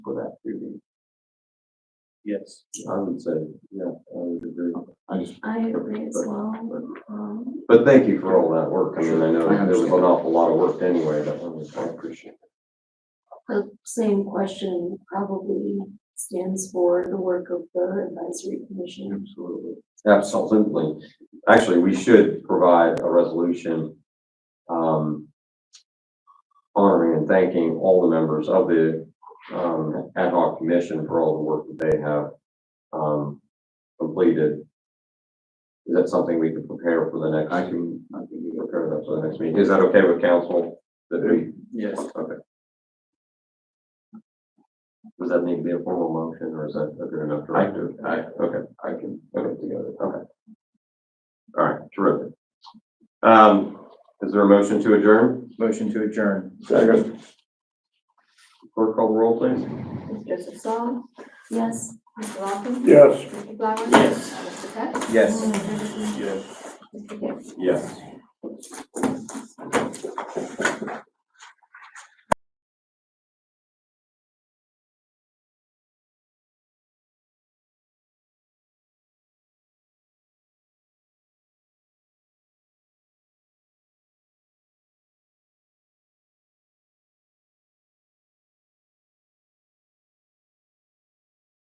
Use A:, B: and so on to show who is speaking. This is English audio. A: Yes.
B: I would say, yeah, I would agree. I just,
C: I agree as well. Um,
B: but thank you for all that work. I mean, I know
D: I
B: there was an
D: understand.
B: awful lot of work anyway, that one was, I appreciate it.
C: The same question probably stands for the work of the advisory commission.
D: Absolutely.
B: Absolutely. Actually, we should provide a resolution, um, honoring and thanking all the members of the, um, ad hoc commission for all the work that they have, um, completed. Is that something we can prepare for the next?
D: I can, I can do
B: Prepare that for the next meeting. Is that okay with council? That we
D: Yes.
B: Okay. Does that need to be a formal motion or is that a good enough directive?
D: I-
B: okay,
D: I can
B: put it together, okay. All right, terrific. Um, is there a motion to adjourn?
A: Motion to adjourn.
B: Second. Clerk call the roll, please.
E: Ms. Joseph Sol,
C: Yes.
E: Mr. Lawson.
F: Yes.
E: Mr. Flowers.
A: Yes.
E: Mr. Peck.
A: Yes.
E: Mr. Gibbs.
B: Yes.